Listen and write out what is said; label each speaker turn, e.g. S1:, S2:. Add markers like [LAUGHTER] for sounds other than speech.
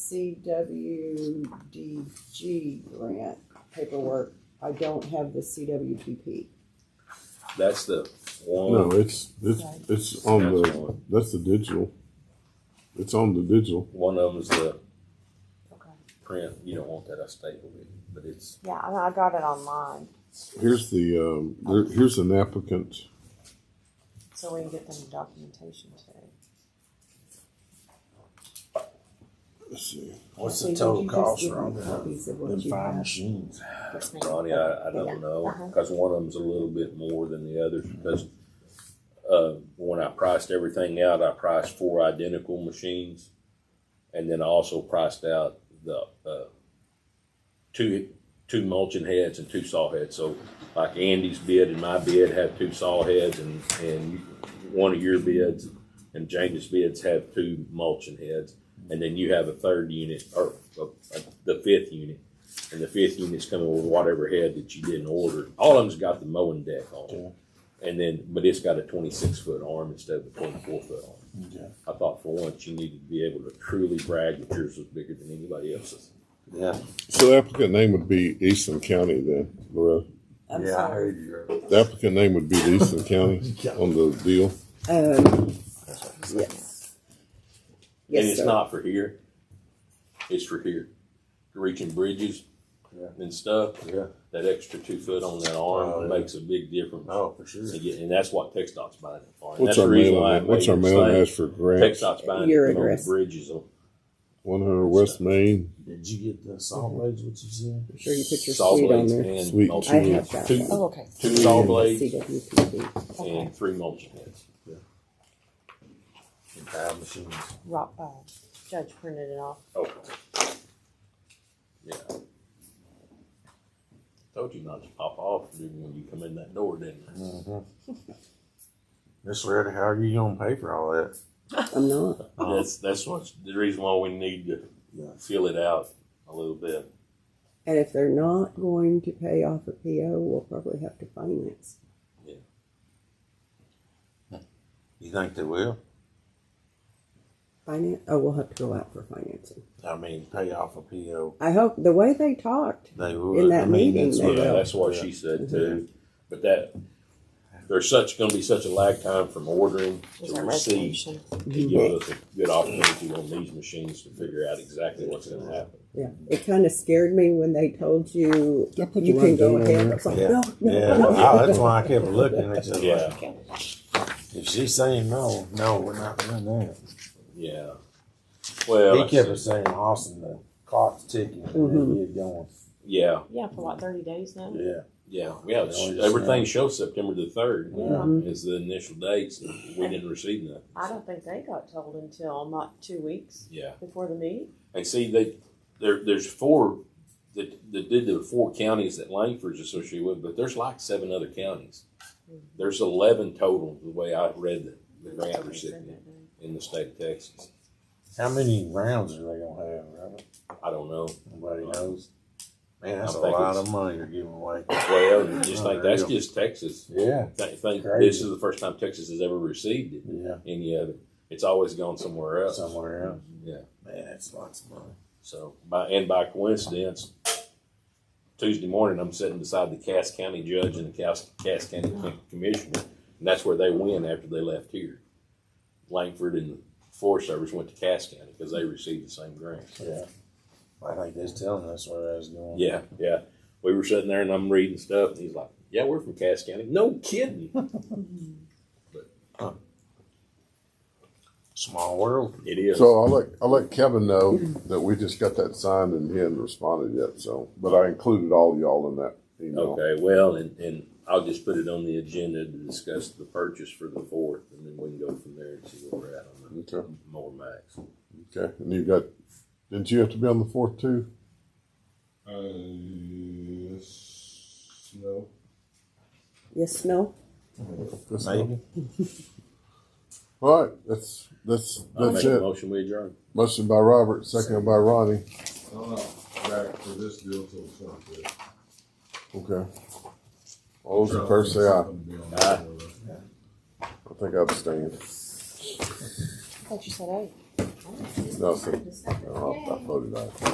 S1: CWDG grant paperwork, I don't have the CWPP.
S2: That's the one.
S3: No, it's, it's, it's on
S2: That's
S3: the,
S2: one.
S3: that's the digital. It's on the digital.
S2: One of them is the
S4: Okay.
S2: print. You don't want that. I stapled it, but it's
S4: Yeah, I, I got it online,
S3: Here's the, um, there, here's an applicant.
S4: so we can get them the documentation too.
S3: Let's see.
S5: What's
S1: Actually, would
S5: the total
S1: you just
S5: cost
S1: give me
S5: around them,
S1: copies of what
S5: them
S1: you
S5: five
S1: have?
S5: machines?
S4: Yes, ma'am.
S2: Ronnie. I, I
S4: Yeah.
S2: don't know
S4: Uh-huh.
S2: because one of them's a little bit more than the others because uh, when I priced everything out, I priced four identical machines, and then I also priced out the uh, two two mulching heads and two saw heads. So like Andy's bid and my bid have two saw heads, and and one of your bids and James's bids have two mulching heads, and then you have a third unit or uh, uh, the fifth unit. And the fifth unit's coming with whatever head that you didn't order. All of them's got the mowing deck on it. And then, but it's got a twenty-six foot arm instead of a twenty-four foot arm.
S5: Okay.
S2: I thought for once you needed to be able to truly brag that yours was bigger than anybody else's.
S5: Yeah,
S3: So the applicant name would be Easton County then, Loretta.
S1: I'm
S5: yeah, I
S1: sorry.
S5: heard you.
S3: The applicant name would be the
S2: [LAUGHS]
S3: Easton County on the deal.
S1: Um, yes.
S2: And
S1: Yes,
S2: it's
S1: sir.
S2: not for here. It's for here. Reaching bridges
S5: Yeah.
S2: and stuff.
S5: Yeah.
S2: That extra two foot on that
S5: Oh,
S2: arm
S5: yeah.
S2: makes a big difference.
S5: Oh, for sure.
S2: And, yeah, and that's what Tech Dot's buying it for. And
S3: What's
S2: that's
S3: our
S2: the reason
S3: mailing,
S2: why I
S3: ad- what's
S2: made
S3: our
S2: the
S3: mailing
S2: mistake.
S3: address for
S2: Tech
S3: grants?
S2: Dot's buying
S1: Your
S2: it on the
S1: address.
S2: bridges on
S3: One hundred West Main.
S5: Did you get the saw blades, what you said?
S1: I'm sure you put your
S2: saw
S1: sweet on
S2: blades
S1: there.
S2: and
S3: Sweet
S1: I
S2: mulching.
S1: have
S3: cheese.
S1: got
S3: Two-
S1: that.
S4: Oh, okay,
S2: Two saw blades
S1: CWPP.
S4: okay.
S2: and three mulching heads.
S5: And five machines.
S4: Rock, uh, Judge printed it off.
S2: Okay. Yeah. Told you not to pop off dude, when you come in that door, didn't I?
S5: Mm-hmm. [LAUGHS] Miss Loretta, how are you gonna pay for all that?
S1: I'm not.
S2: That's, that's what's the reason why we need to
S5: Yeah.
S2: fill it out a little bit.
S1: And if they're not going to pay off a PO, we'll probably have to finance.
S5: You think they will?
S1: Finance, oh, we'll have to go out for financing.
S5: I mean, pay off a PO,
S1: I hope, the way they talked,
S5: they will.
S1: In that
S5: I mean,
S1: meeting,
S5: that's
S1: they
S5: what-
S1: will.
S2: Yeah, that's what she said
S1: Mm-hmm.
S2: too. But that, there's such, gonna be such a lag time from ordering
S4: Is
S2: to
S4: that
S2: receipt.
S4: resolution?
S2: It gives us a good opportunity on these machines to figure out exactly what's gonna happen.
S1: yeah, it kind of scared me when they told you,
S3: Did I put the
S1: you can
S3: right
S1: go
S3: date
S1: ahead.
S3: on
S1: I
S3: there?
S1: was like,
S5: Yeah,
S1: no, no,
S5: yeah,
S1: no.
S5: Oh, that's why I kept looking, it's just like,
S2: Yeah,
S5: if she's saying no, no, we're not doing that.
S2: yeah. Well,
S5: He kept us saying, Austin, the clock's ticking, and
S1: Mm-hmm.
S5: then you're going,
S2: yeah,
S4: Yeah, for like thirty days now.
S5: yeah.
S2: yeah, yeah,
S5: They only just
S2: everything
S5: now.
S2: shows September the third
S4: Yeah.
S2: is the initial dates, and we didn't receive nothing.
S4: I don't think they got told until not two weeks
S2: Yeah,
S4: before the meeting.
S2: and see, they, there, there's four that, that did the four counties that Langford's associated with, but there's like seven other counties. There's eleven total, the way I read the, the grant recipient in the state of Texas.
S5: How many rounds are they gonna have, Robert?
S2: I don't know.
S5: Nobody knows. Man, that's a
S2: I'm thinking
S5: lot
S2: it's-
S5: of money you're giving away.
S2: Well, you just
S5: Oh,
S2: think
S5: there
S2: that's
S5: you go.
S2: just Texas.
S5: Yeah,
S2: Think, think
S5: Crazy.
S2: this is the first time Texas has ever received it,
S5: yeah,
S2: any of it. It's always gone somewhere else.
S5: somewhere else.
S2: Yeah.
S5: Man, that's lots of money.
S2: So by and by coincidence, Tuesday morning I'm sitting beside the Cass County judge and the Cass, Cass County Com- commissioner, and that's where they went after they left here. Langford and the Forest Service went to Cass County because they received the same grant.
S5: Yeah. I think they're telling us where I was going.
S2: Yeah, yeah. We were sitting there and I'm reading stuff, and he's like, "Yeah, we're from Cass County." No kidding.
S4: Mm-hmm.
S5: Small world.
S2: It is.
S3: So I'll let, I'll let Kevin know that we just got that signed and he hadn't responded yet, so, but I included all y'all in that email.
S2: Okay, well, and, and I'll just put it on the agenda to discuss the purchase for the fourth, and then we can go from there and see where we're at on the
S3: Okay,
S2: more max.
S3: okay, and you got, didn't you have to be on the fourth too?
S6: Uh, yes, no.
S1: Yes, no,
S3: That's not-
S5: Maybe.
S3: All right, that's, that's,
S2: I'll make
S3: that's
S2: a
S3: it.
S2: motion, we adjourn.
S3: Motion by Robert, second by Ronnie.
S6: I'm not back for this deal till Sunday.
S3: Okay. All those in favor say aye.
S2: Aye.
S3: I think I abstained.
S4: I thought you said eight.
S3: No, sir. No, I I voted aye.